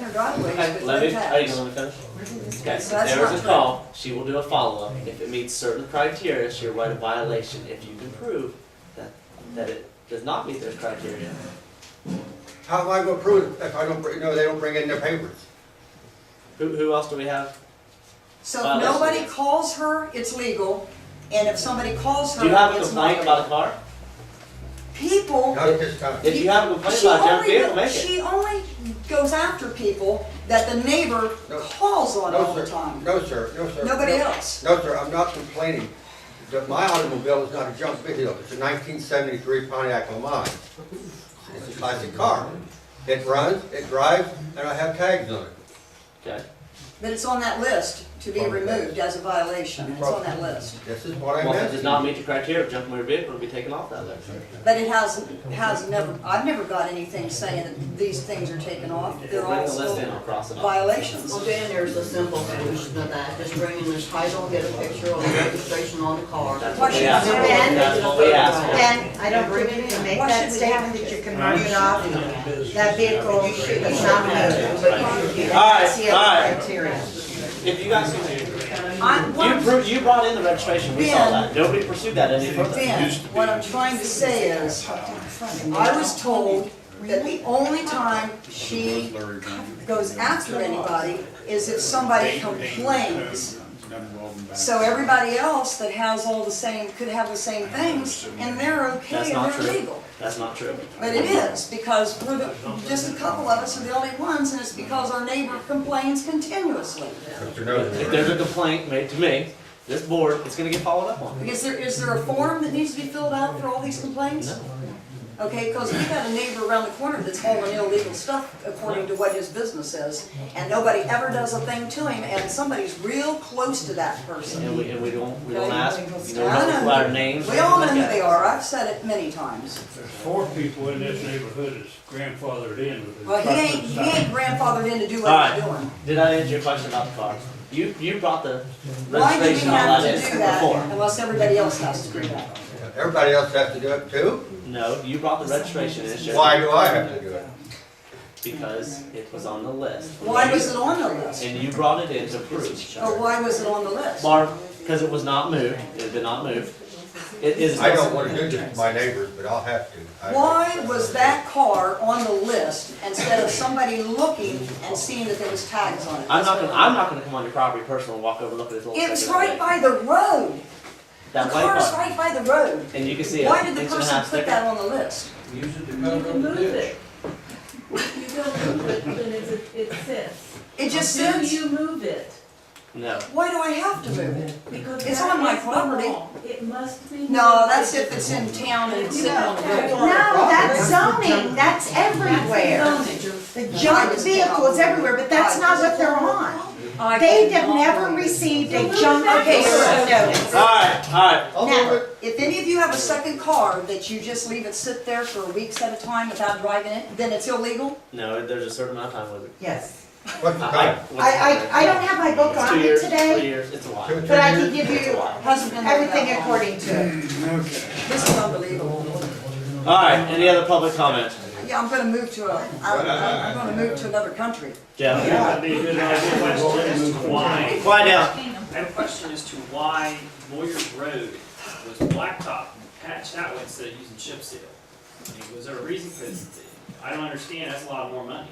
different driveways, Okay, but let no me, are you tax. gonna let me finish? We're doing this Okay, guy, if so that's there not was a fair. call, she will do a follow-up. If it meets certain criteria, she'll write a violation. If you can prove that, that it does not meet those criteria, How am I gonna prove it if I don't, bring- no, they don't bring in their papers? who, who else do we have? So Wow, if that's- nobody calls her, it's legal, and if somebody calls her, Do you have a it's not complaint about a legal. car? People, Not at this time. If you have a complaint she about a junk vehicle, only, make it. she only goes after people that the neighbor No. calls on all No, the sir, time. no, sir, no, sir. Nobody No. else. No, sir, I'm not complaining. The- My automobile is not a junk vehicle, it's a nineteen seventy-three Pontiac LaMai. It's a classic car. It runs, it drives, and I have tags on it. Okay, But it's on that list to be From the removed as a violation, it's on that list. This is what I'm well, if it does asking. not meet the criteria, junk motor vehicle will be taken off that list. But it has, has never, I've never got anything saying that these things are taken off, Bring they're all the list in still or cross it off. violations. Well, Dan, there's a simple solution to that, just bring in this title, get a picture of the registration on the car. That's Why what we should asked for, we ban that's what we asked Then I don't think you can make Why that should we have statement that you can mark it off, that vehicle is not moved. for. Alright, See other alright, criteria. if you guys can, I'm, what you I'm, proved, you brought in the registration, we saw Ben. that, nobody pursued that any further. Ben, what I'm trying to say is, I was told that the only time she goes after anybody is if somebody complains. So everybody else that has all the same, could have the same things, and they're That's okay and not they're true, legal. that's not true. But it is, because we're the, just a couple of us are the only ones, and it's because our neighbor complains continuously. Mr. If Noseworthy, there's a complaint made to me, this board is gonna get followed up on. Is there, is there a form that needs to be filled out for all these complaints? Okay, because we've got a neighbor around the corner that's hauling illegal stuff according to what his business is, and nobody ever does a thing to him, and somebody's real close to that person. And we, and we don't, we don't ask, you I don't know know. our names. or We all know anything who like they that. are, I've said it many times. There's four people in this neighborhood that's grandfathered in with Well, he ain't, construction he site. ain't grandfathered in to do All what right. he's doing. Did I answer your question about the car? You, you brought the Why do we registration on have to that do in that before. unless everybody else has to do that? everybody else has to do it too? No, you brought the registration issue Why do I have to do it? because it was on the list. Why was it Oh, on the list? And you brought it in to prove. Or why was it on the list? Mark, because it was not moved, it did not move. It is. I don't wanna do this to my neighbors, but I'll have to. I- Why was that car on the list instead of somebody looking and seeing that there was tags on it? I'm not gonna, I'm not gonna come on your property personally and walk over and look at this little. It was thing over right there. by the road. The That white car's car. right by the road. And you can see it. Why did the person put that on the list? Move it. You don't move it when it's- it sits. It just Do says, you move it? No, why do I have to move it? Because It's that on my is the property. law. It must be. No, moved. that's if it's in town and it's sitting on the road. No, that's zoning, that's everywhere. That's the The junk vehicle is everywhere, but that's not what they're on. I- They have never received a junk Okay, vehicle so- notice. alright, alright, I'll Now- move it. If any of you have a second car that you just leave it sit there for weeks at a time without driving it, then it's illegal? no, there's a certain amount of time with it. Yes. What's the time? I, I, I don't have my book It's two on me years, three today, years, it's a while. Two, two but I can years? give It's a you while. Hasn't been there that everything long. according to it. This is unbelievable. Alright, any other public comment? Yeah, I'm gonna move to a, I'm, I'm gonna move to another country. Jeff? That'd be a good idea, like, well, let's move wide. Quiet down. I have a question as to why Moyer's Road was blacktop and patched out instead of using chip seal. I mean, Was there a reason for this? I don't understand, that's a lot more money.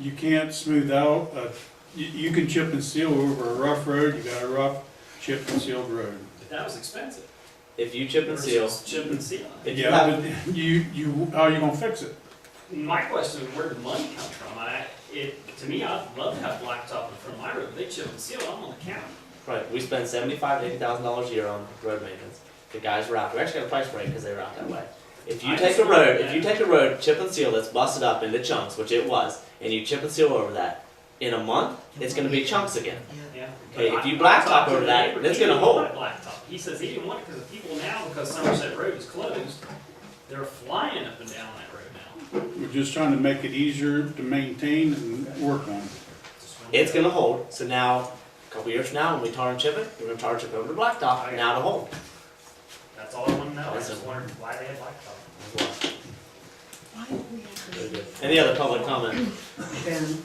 You can't smooth out, uh, you, you can chip and seal over a rough road, you got a rough chip and sealed road. But that was expensive. If you chip and seal, Versus Chip and seal. if you Yeah, have, but you, you, how are you gonna fix it? My question is where did the money come from? I, it, to me, I'd love to have blacktop in front of my road, they chip and seal, I'm on the county. right, we spend seventy-five, eighty thousand dollars a year on road maintenance. The guys were out, we actually got a price break because they were out that way. If you I take a just- road, if you take a road, chip and seal that's busted up into chunks, which it was, and you chip and seal over that, in a month, it's gonna be chunks again. Yeah. Hey, if you But I- I blacktop talked to over the that, neighbor. that's He gonna didn't hold. want Blacktop. He says he didn't want it because the people now, because Somerset Road is closed, they're flying up and down that road now. We're just trying to make it easier to maintain and work on. It's gonna hold, so now, a couple years from now, when we tar and chip it, we're gonna tar and chip over the blacktop, now to hold. That's all I want to know. I just wondered why they had blacktop. Any other public comment? Ben,